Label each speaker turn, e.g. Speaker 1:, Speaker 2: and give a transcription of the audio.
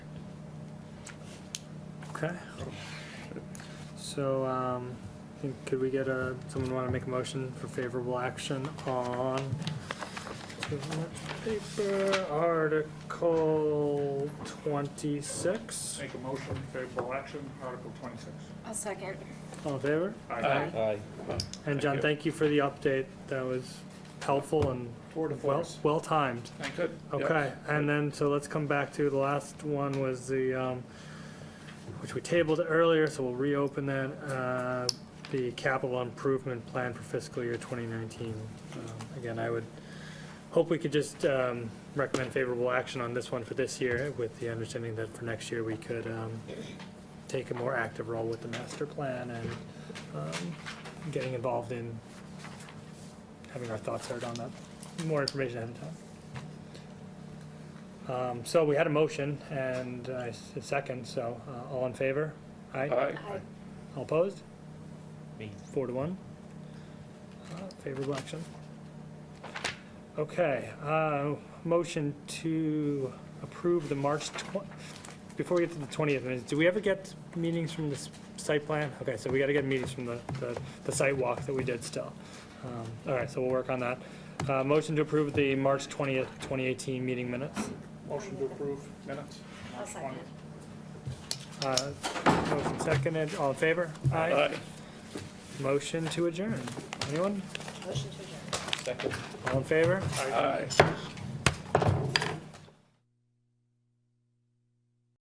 Speaker 1: Okay. So, um, I think, could we get a, someone wanna make a motion for favorable action on too much paper, Article twenty-six?
Speaker 2: Make a motion, favorable action, Article twenty-six.
Speaker 3: I'll second.
Speaker 1: All in favor?
Speaker 3: Aye.
Speaker 4: Aye.
Speaker 1: And
Speaker 4: Thank
Speaker 1: John,
Speaker 4: you.
Speaker 1: thank you for the update. That was helpful and
Speaker 2: Four to four.
Speaker 1: well, well timed.
Speaker 2: Thank you.
Speaker 1: Okay, and then, so let's come back to, the last one was the, um, which we tabled earlier, so we'll reopen that, uh, the capital improvement plan for fiscal year 2019. Um, Again, I would hope we could just um, recommend favorable action on this one for this year, with the understanding that for next year, we could um, take a more active role with the master plan and um, getting involved in having our thoughts heard on that, more information ahead of time. Um, So we had a motion and uh, s- a second, so uh, all in favor? Aye.
Speaker 3: Aye.
Speaker 1: All opposed?
Speaker 4: Me.
Speaker 1: Four to one. Uh, Favorable action. Okay, uh, motion to approve the March 20, before we get to the 20th, minutes, do we ever get meetings from this site plan? Okay, so we got to get meetings from the, the- the site walk that we did still. Um, All right, so we'll work on that. Uh, Motion to approve the March 20th, 2018 meeting minutes.
Speaker 2: Motion to approve minutes.
Speaker 3: I'll second.
Speaker 1: Uh, Motion seconded, all in favor? Motion to adjourn. Anyone?
Speaker 3: Motion to adjourn.
Speaker 4: Second.
Speaker 1: All in favor?
Speaker 4: Aye.